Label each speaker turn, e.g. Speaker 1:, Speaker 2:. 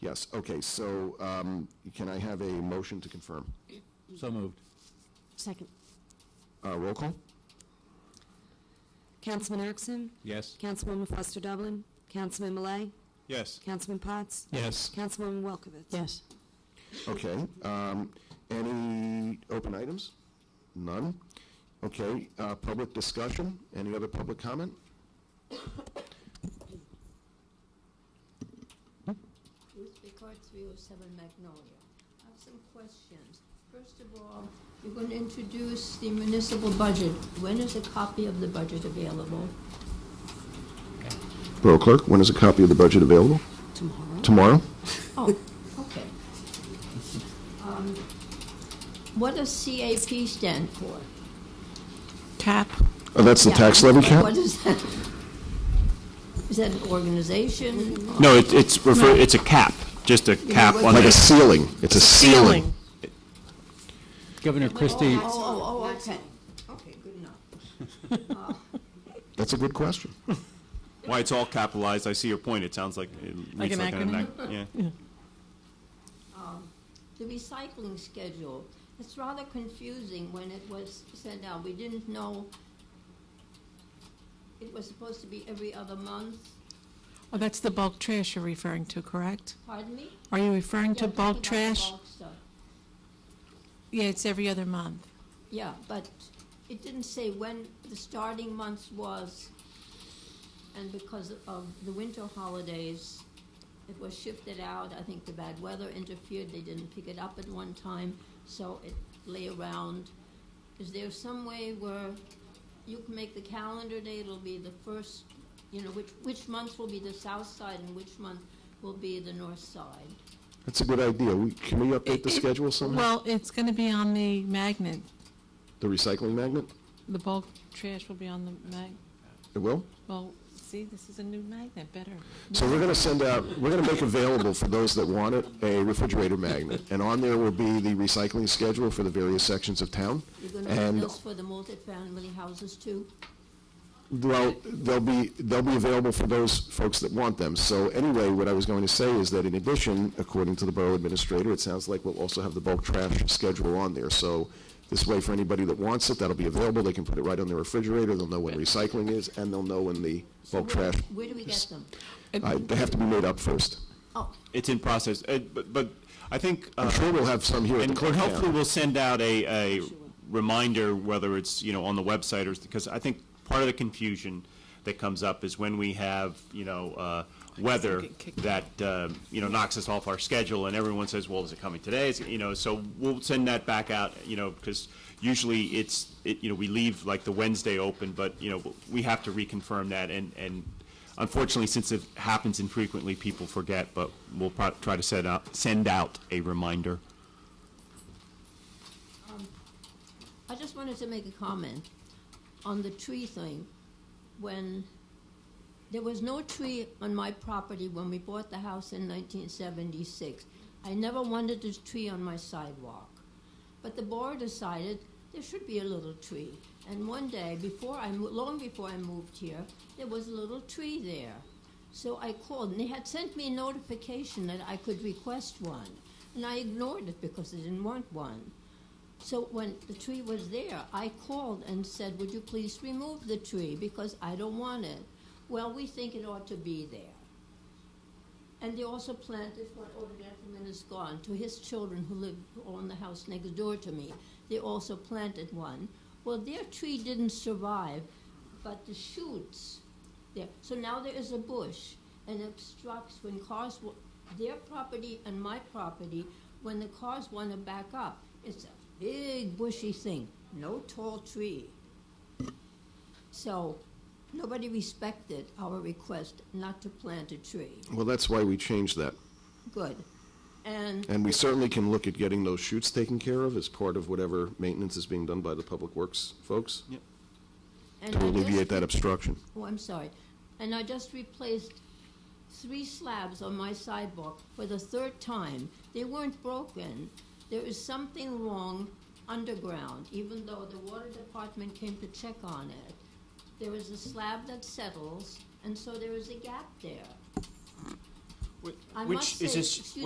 Speaker 1: Yes, okay, so um, can I have a motion to confirm?
Speaker 2: So moved.
Speaker 3: Second.
Speaker 1: Uh, Roll call?
Speaker 3: Councilman Erickson?
Speaker 2: Yes.
Speaker 3: Councilwoman Foster Dublin? Councilman Malay?
Speaker 2: Yes.
Speaker 3: Councilman Potts?
Speaker 2: Yes.
Speaker 3: Councilwoman Welkowitz?
Speaker 4: Yes.
Speaker 1: Okay, um, any open items? None? Okay, uh, public discussion? Any other public comment?
Speaker 5: With regard to 307 Magnolia, I have some questions. First of all, you're going to introduce the municipal budget. When is a copy of the budget available?
Speaker 1: Borough Clerk, when is a copy of the budget available?
Speaker 3: Tomorrow?
Speaker 1: Tomorrow?
Speaker 5: Oh, okay. Um, What does CAP stand for?
Speaker 4: Cap?
Speaker 1: Oh, that's the
Speaker 5: Yeah,
Speaker 1: tax levy cap?
Speaker 5: What is that? Is that an organization?
Speaker 6: No, it- it's refer, it's a cap, just a cap
Speaker 5: what-
Speaker 6: on
Speaker 1: Like a
Speaker 6: the,
Speaker 1: ceiling, it's a ceiling.
Speaker 2: Governor Christie,
Speaker 5: Oh, oh, oh, okay. Okay, good enough.
Speaker 1: That's a good question.
Speaker 6: why it's all capitalized, I see your point, it sounds like, it reads
Speaker 4: an
Speaker 6: like an,
Speaker 4: acronym?
Speaker 6: ac- yeah.
Speaker 5: the recycling schedule. It's rather confusing when it was sent out. We didn't know it was supposed to be every other month.
Speaker 4: Oh, that's the bulk trash you're referring to, correct?
Speaker 5: Pardon me?
Speaker 4: Are you referring to
Speaker 5: Yeah, I'm
Speaker 4: bulk
Speaker 5: talking about the
Speaker 4: trash?
Speaker 5: bulk stuff.
Speaker 4: Yeah, it's every other month.
Speaker 5: Yeah, but it didn't say when the starting month was. And because of the winter holidays, it was shifted out. I think the bad weather interfered. They didn't pick it up at one time, so it lay around. Is there some way where you can make the calendar day? It'll be the first, you know, which, which month will be the south side and which month will be the north side?
Speaker 1: That's a good idea. We- Can we update the schedule somehow?
Speaker 4: Well, it's going to be on the magnet.
Speaker 1: The recycling magnet?
Speaker 4: The bulk trash will be on the mag,
Speaker 1: It will?
Speaker 4: well, see, this is a new magnet, better.
Speaker 1: So we're going to send out, we're going to make available for those that want it, a refrigerator magnet. And on there will be the recycling schedule for the various sections of town.
Speaker 5: You're gonna have
Speaker 1: And,
Speaker 5: those for the multifamily houses too?
Speaker 1: well, they'll be, they'll be available for those folks that want them. So anyway, what I was going to say is that in addition, according to the borough administrator, it sounds like we'll also have the bulk trash schedule on there. So this way, for anybody that wants it, that'll be available. They can put it right on their refrigerator. They'll know when recycling is, and they'll know when the
Speaker 5: So
Speaker 1: bulk
Speaker 5: where-
Speaker 1: trash.
Speaker 5: Where do we get
Speaker 1: is-
Speaker 5: them?
Speaker 1: Uh, They have to be made up first.
Speaker 5: Oh,
Speaker 6: It's in process, Uh, but, but I think,
Speaker 1: I'm
Speaker 6: uh,
Speaker 1: sure we'll have some here at the
Speaker 6: and
Speaker 1: clerk
Speaker 6: hopefully
Speaker 1: now.
Speaker 6: we'll send out a, a reminder, whether it's, you know, on the website or, because I think part of the confusion that comes up is when we have, you know, uh, weather that, uh, you know, knocks us off our schedule, and everyone says, well, is it coming today? Is it- You know, so we'll send that back out, you know, because usually it's, it, you know, we leave like the Wednesday open, but, you know, we have to reconfirm that, and, and unfortunately, since it happens infrequently, people forget, but we'll pro- try to set out, send out a reminder.
Speaker 5: I just wanted to make a comment on the tree thing. When there was no tree on my property when we bought the house in 1976, I never wanted a tree on my sidewalk. But the board decided there should be a little tree. And one day, before I mo- long before I moved here, there was a little tree there. So I called, and they had sent me a notification that I could request one. And I ignored it because I didn't want one. So when the tree was there, I called and said, would you please remove the tree because I don't want it? Well, we think it ought to be there. And they also planted, one older gentleman is gone, to his children who live on the house next door to me. They also planted one. Well, their tree didn't survive, but the shoots there. So now there is a bush and obstructs when cars, wa- their property and my property, when the cars want to back up. It's a big bushy thing, no tall tree. So nobody respected our request not to plant a tree.
Speaker 1: Well, that's why we changed that.
Speaker 5: Good. And
Speaker 1: And we certainly can look at getting those shoots taken care of as part of whatever maintenance is being done by the public works folks
Speaker 5: and
Speaker 1: to
Speaker 5: I
Speaker 1: alleviate
Speaker 5: just-
Speaker 1: that obstruction.
Speaker 5: Oh, I'm sorry. And I just replaced three slabs on my sidewalk for the third time. They weren't broken. There is something wrong underground, even though the water department came to check on it. There is a slab that settles, and so there is a gap there. I
Speaker 6: Which
Speaker 5: must
Speaker 6: is
Speaker 5: say-
Speaker 6: this-
Speaker 5: excuse